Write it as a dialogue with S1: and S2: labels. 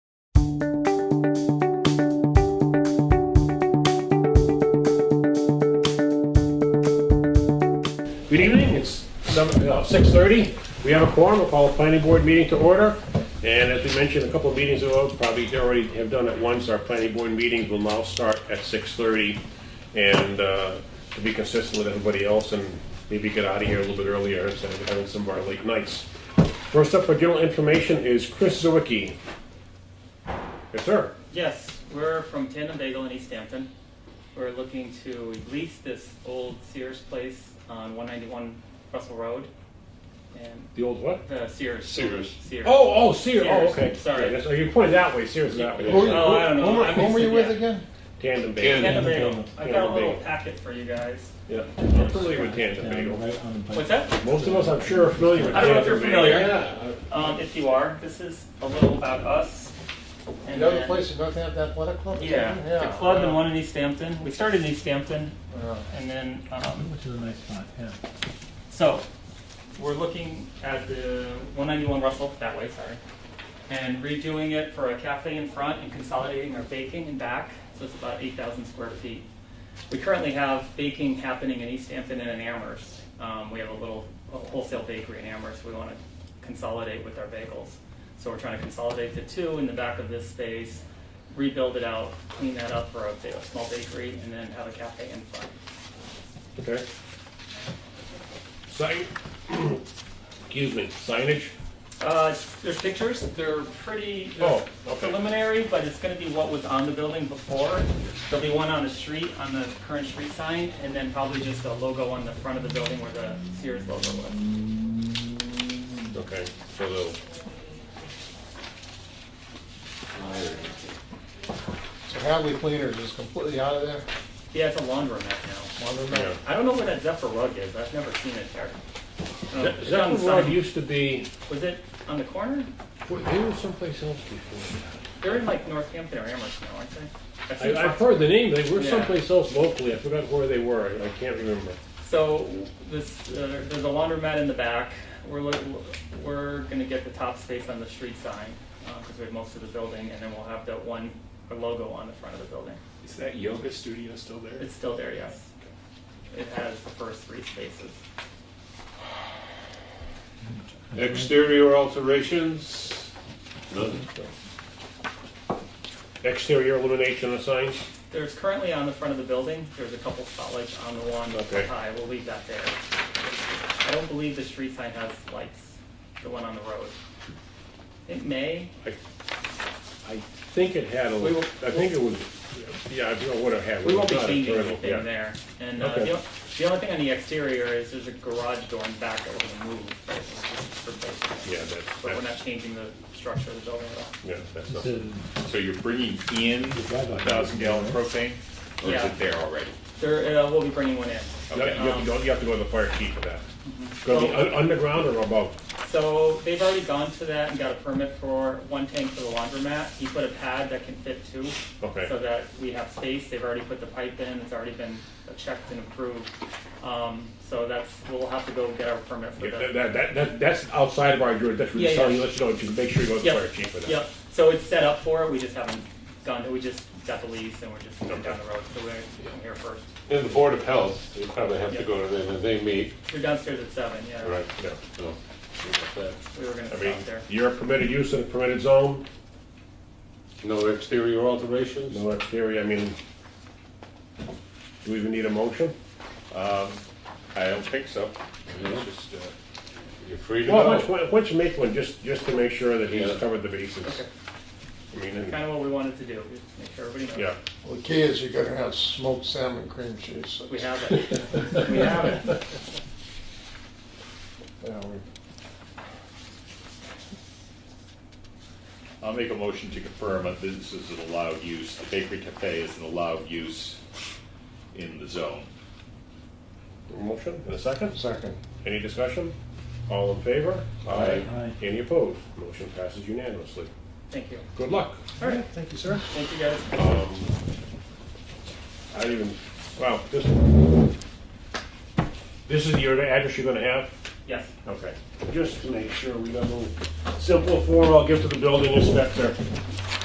S1: Good evening, it's uh, six thirty. We have a quorum, we'll call a planning board meeting to order. And as we mentioned a couple of meetings ago, probably they already have done it once, our planning board meetings will now start at six thirty. And uh, to be consistent with everybody else and maybe get out of here a little bit earlier instead of having some of our late nights. First up for general information is Chris Zawicki. Yes, sir.
S2: Yes, we're from Tandem Bagel in East Hampton. We're looking to lease this old Sears place on 191 Russell Road. And
S1: The old what?
S2: the Sears.
S3: Sears.
S2: Sears.
S1: Oh, oh, Sears, oh,
S2: Sears,
S1: okay.
S2: sorry.
S1: Yeah, that's- oh, You pointed that way, Sears is that way.
S3: Oh,
S2: Oh, I don't know.
S4: Whom were-
S2: I
S4: whom were
S2: mixed
S4: you
S2: it,
S4: with
S2: yeah.
S4: again?
S1: Tandem
S3: Tandem.
S1: bagel.
S2: Tandem Bagel.
S4: Tandem.
S2: I got a
S1: Tandem
S2: little
S1: Bagel.
S2: packet for you guys.
S1: Yeah, I'm familiar with tandem bagel.
S4: right on the plate.
S2: What's that?
S1: Most of us, I'm sure, are familiar with
S2: I don't know if
S1: tandem
S2: you're
S1: bagel.
S2: familiar.
S4: Yeah,
S2: Um, if you are, this is a little about us.
S4: you
S2: And
S4: know the
S2: then-
S4: place that doesn't have that athletic club? or
S2: Yeah,
S4: something?
S2: the club and one in East Hampton. We started in East Hampton
S4: Yeah.
S2: and then, um,
S4: Which is a nice spot, yeah.
S2: So, we're looking at the 191 Russell, that way, sorry, and redoing it for a cafe in front and consolidating our baking and back, so it's about 8,000 square feet. We currently have baking happening in East Hampton and in Amherst. Um, We have a little a wholesale bakery in Amherst, we want to consolidate with our bagels. So we're trying to consolidate the two in the back of this space, rebuild it out, clean that up for a ba- a small bakery, and then have a cafe in front.
S1: Okay. Sign, excuse me, signage?
S2: Uh, there's pictures, they're pretty, they're
S1: Oh, okay.
S2: preliminary, but it's gonna be what was on the building before. There'll be one on the street, on the current street sign, and then probably just a logo on the front of the building where the Sears logo was.
S1: Okay, so the,
S4: So Hadley Cleaners is completely out of there?
S2: Yeah, it's a laundromat now.
S1: yeah.
S2: I don't know where that Zephyr rug is, I've never seen it there. Um,
S1: That-
S2: it's on
S1: That
S2: the
S1: road
S2: sign.
S1: used to be,
S2: Was it on the corner?
S1: wait, they were someplace else before.
S2: They're in like Northampton or Amherst now, aren't they? I've seen
S1: I, I've
S2: trucks-
S1: heard the name, they were
S2: Yeah.
S1: someplace else locally, I forgot where they were, I can't remember.
S2: So this, uh, there's a laundromat in the back. We're, lo- we're gonna get the top space on the street sign, because we have most of the building, and then we'll have that one logo on the front of the building.
S3: Is that yoga studio still there?
S2: It's still there, yes. It has the first three spaces.
S3: Exterior alterations? None.
S1: Exterior illumination of signs?
S2: There's currently on the front of the building, there's a couple spotlights on the one up
S1: Okay.
S2: high, we'll leave that there. I don't believe the street sign has lights, the one on the road. It may,
S1: I I think it had a,
S2: We will-
S1: I think it was, yeah, I don't know what it had.
S2: We won't be
S1: Not a
S2: changing
S1: turtle, yeah.
S2: anything there. And uh,
S1: Okay.
S2: the o- the only thing on the exterior is there's a garage door in back that we're gonna move. but it's just for placement.
S1: Yeah, that's,
S2: But we're not
S1: that's,
S2: changing the structure of the building at all.
S1: yeah, that's
S4: It's
S1: nothing.
S4: a-
S5: So you're bringing in a thousand gallon propane, or is
S2: Yeah.
S5: it there already?
S2: There, uh, we'll be bringing one in.
S1: You have- you have to go, you have to go to the fire chief for that. Gonna be
S2: Mm-hmm. Well-
S1: un- underground or above?
S2: So they've already gone to that and got a permit for one tank for the laundromat. He put a pad that can fit two.
S1: Okay.
S2: So that we have space. They've already put the pipe in. It's already been checked and approved. Um, So that's, we'll have to go get our permit for
S1: Yeah, That,
S2: that.
S1: that- that, that, that's outside of our jurisdiction, we're
S2: Yeah,
S1: just telling
S2: yeah.
S1: you, let you know, you can make sure you go to the fire
S2: Yep,
S1: chief for that.
S2: yep. So it's set up for it, we just haven't gone, we just got the lease and we're just going down the road, so we're here first.
S3: And the Board of Health, you probably have to go to them, and they meet.
S2: We're downstairs at seven, yeah.
S3: Right.
S1: Yeah,
S3: so, you got
S2: We were gonna
S1: I mean,
S2: stop there.
S1: you're a permitted use in a permitted zone,
S3: that. No exterior alterations?
S1: no exterior, I mean, do we even need a motion?
S5: Um, I don't think so.
S3: It's just, uh, You're free to
S1: Well, why don't
S3: go.
S1: you- why don't you make one, just, just to make sure that he's
S3: Yeah.
S1: covered the bases.
S2: Okay.
S1: I mean, and-
S2: Kinda what we wanted to do, just make sure everybody
S1: yeah.
S2: knows.
S4: Well, the key is you're gonna have smoked salmon cream cheese.
S2: We have it, we have it.
S4: Yeah, we-
S5: I'll make a motion to confirm that this is an allowed use, the bakery cafe is an allowed use in the zone.
S1: Motion in a second?
S4: Second.
S1: Any discussion? All in favor?
S3: Aye.
S4: Aye.
S1: Any opposed? Motion passes unanimously.
S2: Thank you.
S1: Good luck.
S2: All right,
S4: Thank you, sir.
S2: thank you guys.
S1: Um, I didn't even, wow, this, this is your address you're gonna have?
S2: Yes,
S1: Okay. Just to make sure we got a little simple form I'll give to the building inspector.